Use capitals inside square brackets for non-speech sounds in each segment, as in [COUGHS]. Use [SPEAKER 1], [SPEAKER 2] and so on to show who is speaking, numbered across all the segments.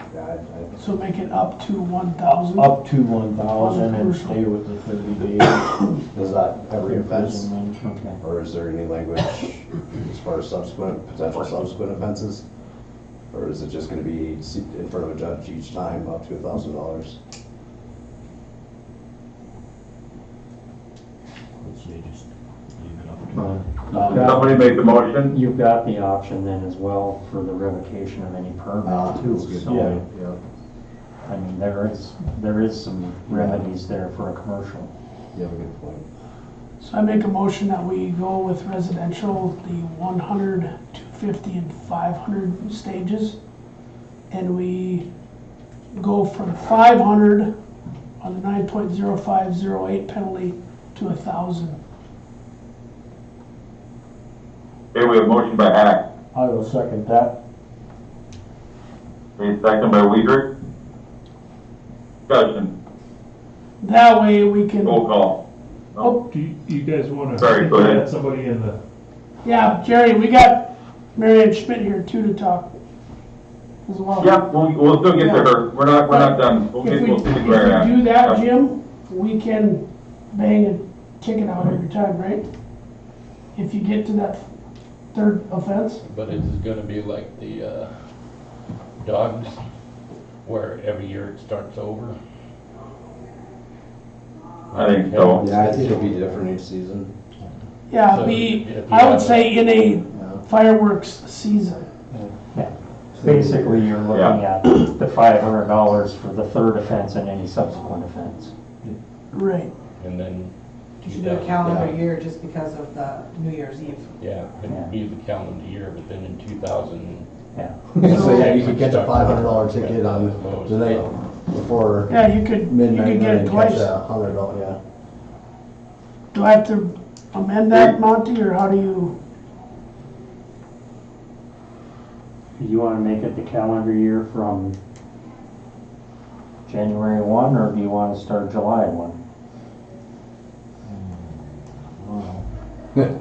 [SPEAKER 1] I- I-
[SPEAKER 2] So make it up to one thousand?
[SPEAKER 3] Up to one thousand and
[SPEAKER 2] Uncrucial.
[SPEAKER 3] stay with the thirty days
[SPEAKER 1] Is that every offense?
[SPEAKER 3] imprisonment.
[SPEAKER 1] Or is there any language as far as subsequent, potential subsequent offenses? Or is it just gonna be se- in front of a judge each time up to a thousand dollars?
[SPEAKER 3] Um,
[SPEAKER 4] Somebody make the motion?
[SPEAKER 5] You've got the option then as well for the revocation of any
[SPEAKER 1] Ah,
[SPEAKER 5] permit too.
[SPEAKER 3] Yeah.
[SPEAKER 5] So, I mean, there is, there is some remedies there for a commercial.
[SPEAKER 1] You have a good point.
[SPEAKER 2] So I make a motion that we go with residential, the 100, 250, and 500 stages. And we go from 500 on the 9.0508 penalty to 1,000.
[SPEAKER 4] Okay, we have motion by Hack,
[SPEAKER 3] I will second that.
[SPEAKER 4] Okay, second by Weider. Discussion,
[SPEAKER 2] That way we can,
[SPEAKER 4] roll call.
[SPEAKER 2] oh,
[SPEAKER 6] Do you, you guys wanna?
[SPEAKER 4] Sorry, go ahead.
[SPEAKER 6] add Somebody in the,
[SPEAKER 2] yeah, Jerry, we got Marion Schmidt here too to talk as well.
[SPEAKER 4] Yeah, we'll, we'll still get to her. We're not, we're not done. We'll
[SPEAKER 2] If
[SPEAKER 4] get,
[SPEAKER 2] we,
[SPEAKER 4] we'll
[SPEAKER 2] if
[SPEAKER 4] see where
[SPEAKER 2] we do
[SPEAKER 4] we're
[SPEAKER 2] that,
[SPEAKER 4] at. Yep.
[SPEAKER 2] Jim, we can bang and kick it out every time, right? If you get to that third offense,
[SPEAKER 7] But it is gonna be like the, uh, dogs, where every year it starts over?
[SPEAKER 4] I think so.
[SPEAKER 1] Yeah, I think it'll be different each season.
[SPEAKER 2] yeah,
[SPEAKER 7] So,
[SPEAKER 2] be,
[SPEAKER 7] if you
[SPEAKER 2] I would
[SPEAKER 7] have
[SPEAKER 2] say in a fireworks season.
[SPEAKER 5] Basically, you're looking at the five hundred dollars for the third offense and any subsequent offense.
[SPEAKER 2] Right.
[SPEAKER 7] And then,
[SPEAKER 8] You should do a calendar year just because of the New Year's Eve.
[SPEAKER 7] yeah,
[SPEAKER 5] Yeah.
[SPEAKER 7] it'd be the calendar year, but then in two thousand.
[SPEAKER 5] Yeah.
[SPEAKER 1] [LAUGHS] So, yeah, you could catch a five hundred dollar ticket on the night before
[SPEAKER 2] Yeah, you could, you
[SPEAKER 1] midnight
[SPEAKER 2] could
[SPEAKER 1] and
[SPEAKER 2] get it
[SPEAKER 1] then catch
[SPEAKER 2] twice.
[SPEAKER 1] a hundred dollar, yeah.
[SPEAKER 2] Do I have to amend that, Monty, or how do you,
[SPEAKER 5] You wanna make it the calendar year from January one, or do you wanna start July one? Or- [LAUGHS]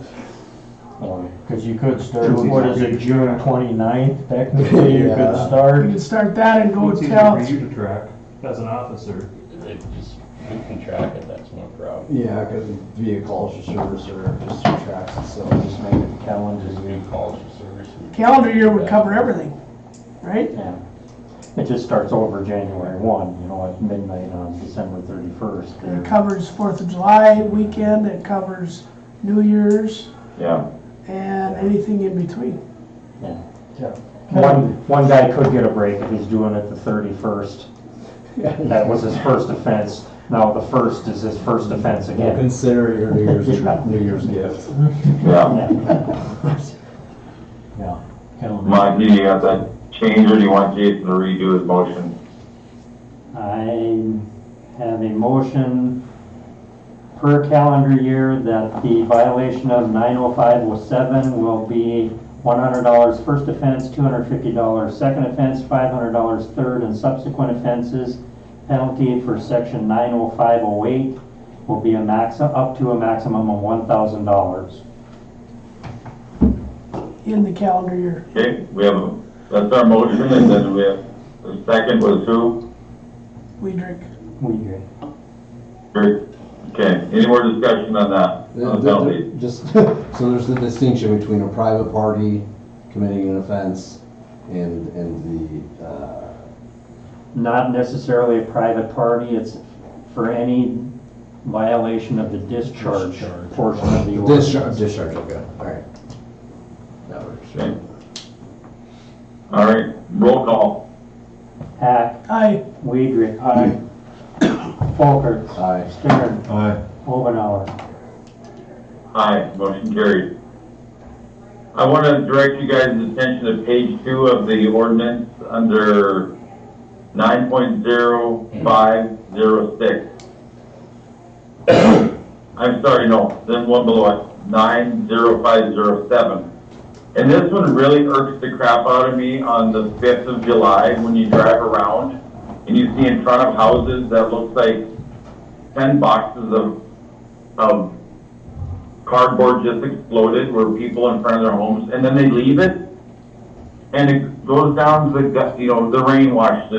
[SPEAKER 5] Cause you could start, what is it, June twenty-ninth technically, you could
[SPEAKER 1] Yeah.
[SPEAKER 2] you
[SPEAKER 5] start.
[SPEAKER 2] could start that and go
[SPEAKER 6] it's easier for
[SPEAKER 2] tell,
[SPEAKER 6] you to track as an officer.
[SPEAKER 7] It just, we can track it, that's no problem.
[SPEAKER 1] Yeah, cause via calls or service or just through tracks itself.
[SPEAKER 5] Just make it the calendar
[SPEAKER 7] Just
[SPEAKER 5] year.
[SPEAKER 7] new calls for service. and-
[SPEAKER 2] calendar year would cover everything, right?
[SPEAKER 5] Yeah, it just starts over January one, you know, at midnight on December thirty-first.
[SPEAKER 2] It covers Fourth of July weekend, it covers New Year's,
[SPEAKER 4] Yeah,
[SPEAKER 2] and anything in between.
[SPEAKER 5] One, one guy could get a break if he's doing it the thirty-first. That was his first offense, now the first is his first offense again.
[SPEAKER 1] Consider your New [LAUGHS] Year's, New Year's gift.
[SPEAKER 4] yeah.
[SPEAKER 5] [LAUGHS] Yeah.
[SPEAKER 4] Monty, do you have that change or do you want Jason to redo his motion?
[SPEAKER 5] I have a motion per calendar year that the violation of 90507 will be $100 first offense, $250 second offense, $500 third and subsequent offenses. Penalty for section 90508 will be a max, up to a maximum of $1,000.
[SPEAKER 2] in the calendar year.
[SPEAKER 4] Okay, we have, a- that's our motion and then we have, the second was who?
[SPEAKER 2] We drink.
[SPEAKER 5] We agree.
[SPEAKER 4] Okay, any more discussion on that?
[SPEAKER 1] The-
[SPEAKER 4] On
[SPEAKER 1] the-
[SPEAKER 4] penalties?
[SPEAKER 1] the- Just, [LAUGHS] so there's the distinction between a private party committing an offense and, and the, uh,
[SPEAKER 5] not necessarily a private party, it's for any violation of the discharge
[SPEAKER 7] Discharge.
[SPEAKER 5] portion of the ordinance.
[SPEAKER 1] discharge, discharge, okay, all right. That works.
[SPEAKER 4] Okay. All right, roll call.
[SPEAKER 5] Hack,
[SPEAKER 2] Aye.
[SPEAKER 5] Weidrich. Aye. Folker.
[SPEAKER 1] Aye.
[SPEAKER 5] Stern.
[SPEAKER 6] Aye.
[SPEAKER 5] Omenauer.
[SPEAKER 4] Aye, motion carried. I want to direct you guys' attention to page two of the ordinance under 9.0506. [COUGHS] I'm sorry, no, then one below it, 90507. And this one really irks the crap out of me on the 5th of July when you drive around and you see in front of houses that looks like 10 boxes of, of cardboard just exploded where people in front of their homes, and then they leave it, and it goes down to the, gut- you know, the rain wash